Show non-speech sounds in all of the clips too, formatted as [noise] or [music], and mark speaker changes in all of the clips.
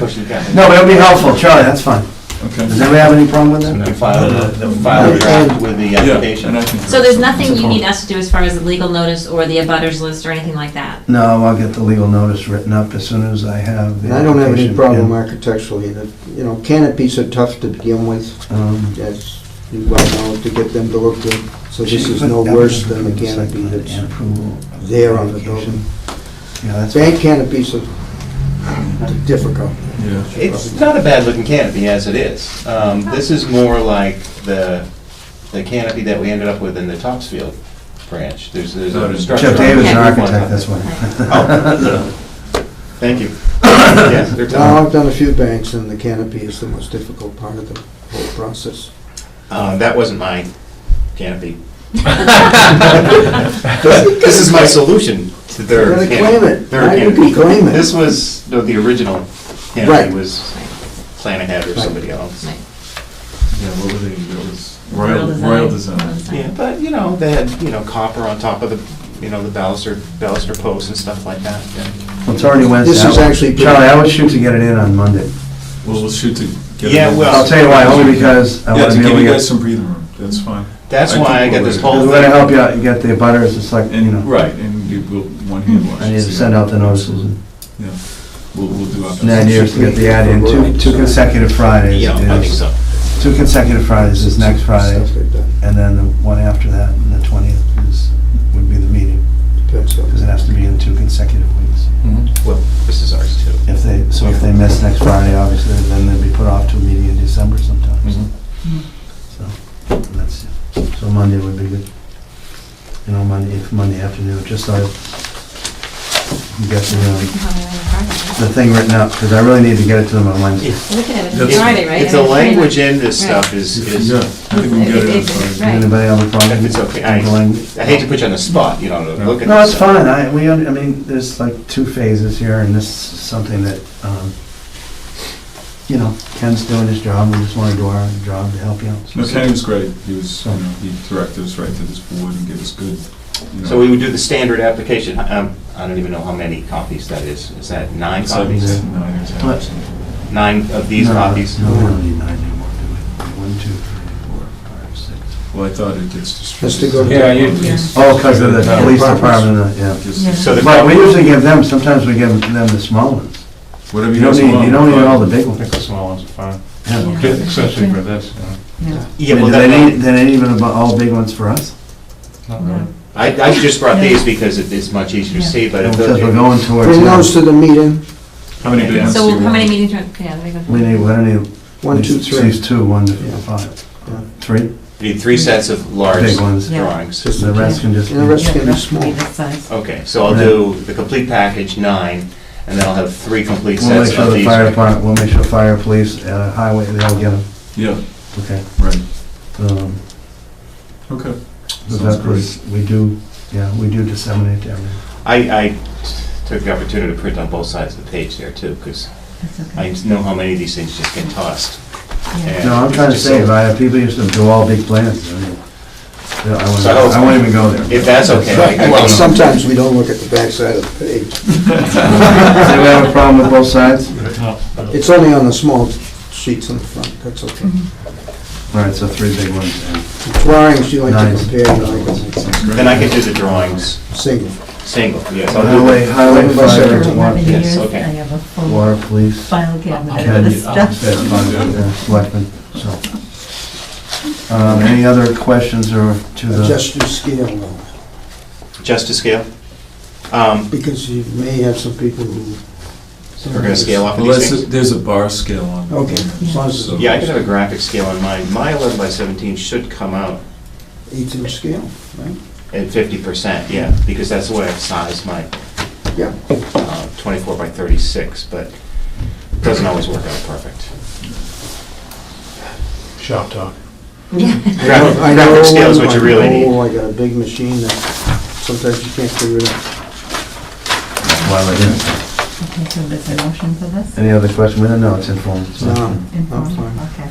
Speaker 1: No, but it'll be helpful, Charlie, that's fine. Does
Speaker 2: Okay.
Speaker 1: anybody have any problem with
Speaker 3: And
Speaker 1: that?
Speaker 3: then file the, file the draft with the
Speaker 2: Yeah, and I
Speaker 3: application.
Speaker 2: can-
Speaker 4: So there's nothing
Speaker 2: It's a
Speaker 4: you
Speaker 2: problem.
Speaker 4: need us to do as far as the legal notice or the abutters list or anything like that?
Speaker 1: No, I'll get the legal notice written up as soon as I have the
Speaker 5: And I don't have any
Speaker 1: application
Speaker 5: problem
Speaker 1: in.
Speaker 5: architecturally, that, you know, canopies are tough to begin with,
Speaker 1: Um,
Speaker 5: as you well know, to get them to look good, so this is
Speaker 1: but
Speaker 5: no
Speaker 1: that was
Speaker 5: worse than the
Speaker 1: approved site
Speaker 5: canopy
Speaker 1: plan
Speaker 5: that's
Speaker 1: and approval of
Speaker 5: there on the
Speaker 1: application.
Speaker 5: building.
Speaker 1: Yeah, that's.
Speaker 5: Bank canopies are difficult.
Speaker 2: Yeah.
Speaker 3: It's not a bad looking canopy as it is. Um, This is more like the, the canopy that we ended up with in the Topsfield branch. There's, there's
Speaker 2: No,
Speaker 3: a
Speaker 2: it's-
Speaker 3: structure.
Speaker 1: Jeff Davis,
Speaker 3: on
Speaker 1: an
Speaker 3: top of
Speaker 1: architect,
Speaker 3: it.
Speaker 1: that's why.
Speaker 3: Oh, Thank you. Yes, they're
Speaker 5: Now,
Speaker 3: tough.
Speaker 5: I've done a few banks, and the canopy is the most difficult part of the whole process.
Speaker 3: Uh, That wasn't my canopy. This is my solution to
Speaker 5: You're
Speaker 3: their
Speaker 5: gonna
Speaker 3: canopy.
Speaker 5: claim it.
Speaker 3: their
Speaker 5: Why would
Speaker 3: canopy.
Speaker 5: you claim it?
Speaker 3: This was, no, the original
Speaker 5: Right.
Speaker 3: canopy was Planahead or
Speaker 5: Right.
Speaker 3: somebody else.
Speaker 4: Right.
Speaker 2: Yeah, what were they, it was
Speaker 4: Royal
Speaker 2: Royal, Royal Design.
Speaker 4: Design.
Speaker 3: Yeah, but, you know, they had, you know, copper on top of the, you know, the baluster, baluster posts and stuff like that. yeah.
Speaker 1: [laughs] Well, It's already Wednesday.
Speaker 5: This is
Speaker 1: I-
Speaker 5: actually-
Speaker 1: Charlie, I would shoot to get it in on Monday.
Speaker 2: Well, we'll shoot to get.
Speaker 3: Yeah,
Speaker 2: it over.
Speaker 3: well-
Speaker 1: I'll tell you why, only because I
Speaker 2: Yeah,
Speaker 1: want
Speaker 2: to
Speaker 1: to be able
Speaker 2: give
Speaker 1: to
Speaker 2: you
Speaker 1: get,
Speaker 2: guys some breathing room, that's fine.
Speaker 3: That's
Speaker 2: I
Speaker 3: why I
Speaker 2: think
Speaker 3: got
Speaker 2: we'll-
Speaker 3: this whole
Speaker 1: we're
Speaker 3: thing.
Speaker 1: gonna help you out, you get the butters, it's like, you
Speaker 2: And,
Speaker 1: know,
Speaker 2: right, and you will, one hand wash.
Speaker 1: I need to
Speaker 2: so-
Speaker 1: send out the notices. and-
Speaker 2: Yeah, we'll, we'll do our best.
Speaker 1: And the idea is to get the ad in, two, two consecutive Fridays
Speaker 3: You know, I think
Speaker 1: is,
Speaker 3: so.
Speaker 1: two consecutive Fridays is next Friday,
Speaker 5: Stuff they've done,
Speaker 1: and then the one after that, and the twentieth is, would be the meeting,
Speaker 5: depends on-
Speaker 1: because it has to be in two consecutive weeks.
Speaker 2: Mhm.
Speaker 3: Well, this is ours too.
Speaker 1: If they, so if they miss next Friday, obviously, then they'd be put off to a meeting in December sometime,
Speaker 3: Mm-hmm.
Speaker 2: Mhm.
Speaker 1: so, that's, so Monday would be good. You know, Monday, if Monday afternoon, just so I, I'm guessing, um, the thing written up, because I really need to get it to them on Wednesday.
Speaker 4: We could have it
Speaker 2: It's-
Speaker 4: Friday, right?
Speaker 3: If the language in this stuff is, is,
Speaker 2: Yeah, I think we can get it on Friday.
Speaker 4: Right.
Speaker 1: Anybody have a problem?
Speaker 3: if it's okay, I, I hate to put you on the spot, you know, to look at.
Speaker 1: No,
Speaker 3: this
Speaker 1: it's
Speaker 3: stuff.
Speaker 1: fine, I, we, un- I mean, there's like two phases here, and this is something that, um, you know, Ken's doing his job, we just wanna do our job to help you out.
Speaker 2: No, Kenny was great, he was, you know, he directed us right to this board and gave us good, you know.
Speaker 3: So we would do the standard application, um, I don't even know how many copies that is, is that nine
Speaker 2: It's like
Speaker 3: copies?
Speaker 2: nine or
Speaker 1: What?
Speaker 2: ten.
Speaker 3: Nine of these
Speaker 1: No,
Speaker 3: copies?
Speaker 1: No, we don't need nine anymore, do we? One, two, three, four, five, six.
Speaker 2: Well, I thought it gets
Speaker 5: Has to go
Speaker 2: distributed.
Speaker 5: to- Yeah,
Speaker 2: you.
Speaker 4: Yeah.
Speaker 1: Oh, 'cause of the
Speaker 2: Yeah.
Speaker 1: police department, uh, yeah.
Speaker 3: So the.
Speaker 1: But we usually give them, sometimes we give them the small ones.
Speaker 2: Whatever
Speaker 1: You
Speaker 2: you
Speaker 1: don't
Speaker 2: guys
Speaker 1: need,
Speaker 2: want.
Speaker 1: you don't need all the big
Speaker 6: I
Speaker 1: ones.
Speaker 6: think the small ones are fine,
Speaker 1: Yeah.
Speaker 4: Yeah.
Speaker 6: especially for this, you know.
Speaker 3: Yeah,
Speaker 1: Do
Speaker 3: well,
Speaker 1: they
Speaker 3: that-
Speaker 1: need, do they need even about all big ones for us?
Speaker 6: Not really.
Speaker 3: I, I just brought these because it- it's much easier to see, but. if
Speaker 1: Because we're going towards.
Speaker 5: Bring those to the meeting,
Speaker 2: How many big ones do you
Speaker 4: So
Speaker 2: want?
Speaker 4: how many meetings, are- yeah, there
Speaker 1: We
Speaker 4: you
Speaker 1: need,
Speaker 4: go.
Speaker 1: we don't need.
Speaker 5: one, two, three.
Speaker 1: These two, one to
Speaker 5: Yeah.
Speaker 1: five.
Speaker 5: Yeah.
Speaker 1: Three,
Speaker 3: You need three sets of large
Speaker 1: big ones.
Speaker 4: Yeah.
Speaker 3: drawings.
Speaker 5: Just-
Speaker 1: The rest can just.
Speaker 5: And the rest
Speaker 4: Yeah,
Speaker 5: can be
Speaker 4: that's
Speaker 5: small.
Speaker 4: pretty good size.
Speaker 3: Okay, so I'll do the complete package, nine, and then I'll have three complete
Speaker 1: We'll
Speaker 3: sets
Speaker 1: make sure
Speaker 3: of
Speaker 1: the
Speaker 3: these.
Speaker 1: fire department, we'll make sure fire, police, uh, highway, they all get them,
Speaker 2: Yeah,
Speaker 1: okay?
Speaker 2: right,
Speaker 1: Um,
Speaker 2: okay.
Speaker 1: The
Speaker 2: Sounds
Speaker 1: veterans, we do, yeah, we do disseminate to everyone.
Speaker 3: I, I took the opportunity to print on both sides of the page there too, because
Speaker 4: That's
Speaker 3: I
Speaker 4: okay.
Speaker 3: know how many of these things just get tossed.
Speaker 4: Yeah.
Speaker 1: No, I'm trying to save, I, people used to do all big plans, I mean, yeah, I wouldn't,
Speaker 3: So-
Speaker 1: I wouldn't even go there. [laughs]
Speaker 3: If that's okay. I- I-
Speaker 5: Well, sometimes we don't look at the backside of the page.
Speaker 1: Does anyone have a problem with both sides?
Speaker 5: It's only on the small sheets in the front, that's okay.
Speaker 1: All right, so three big ones, and
Speaker 5: The Drawings, you like to
Speaker 1: Nice.
Speaker 5: compare, you like them
Speaker 3: Then I can do the drawings
Speaker 5: single.
Speaker 3: single, yes. I'll do
Speaker 1: highway,
Speaker 3: the-
Speaker 1: highway,
Speaker 5: Remember
Speaker 1: fire,
Speaker 5: the
Speaker 4: Remember the
Speaker 1: water,
Speaker 4: years, I
Speaker 3: okay.
Speaker 4: have a full
Speaker 1: water, police.
Speaker 4: file cabinet of
Speaker 1: Ken, you-
Speaker 4: this stuff. [laughs]
Speaker 1: that's fine, yeah, Selectmen, so. Um, any other questions or to the,
Speaker 5: Adjust your scale though,
Speaker 3: Just to scale? Um,
Speaker 5: because you may have some people who.
Speaker 3: We're gonna scale up
Speaker 2: Well,
Speaker 3: these
Speaker 2: that's,
Speaker 3: things?
Speaker 2: there's a bar scale on. it.
Speaker 5: Okay, as long as
Speaker 2: So-
Speaker 5: it's
Speaker 3: Yeah, I can have a graphic scale on mine. My 11 by 17 should come out
Speaker 5: eighth inch scale, right?
Speaker 3: at 50%, yeah, because that's the way I've sized my
Speaker 5: Yeah.
Speaker 3: uh, 24 by 36, but it doesn't always work out perfect.
Speaker 6: Shop talk.
Speaker 3: Graphic
Speaker 5: I know-
Speaker 3: graphic scale is what you really
Speaker 5: I know,
Speaker 3: need.
Speaker 5: I got a big machine that sometimes you can't figure it out.
Speaker 1: while we're here,
Speaker 4: Okay, so there's a motion for this?
Speaker 1: any other question? We don't know, it's informal. so-
Speaker 5: No, I'm
Speaker 4: Informal,
Speaker 5: fine.
Speaker 4: okay.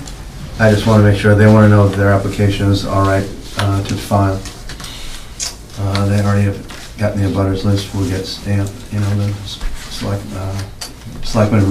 Speaker 1: I just want to make sure, they want to know if their application is all right uh, to file. Uh, They already have gotten the abutters list, we'll get stamped, you know, the s- select, uh, selectmen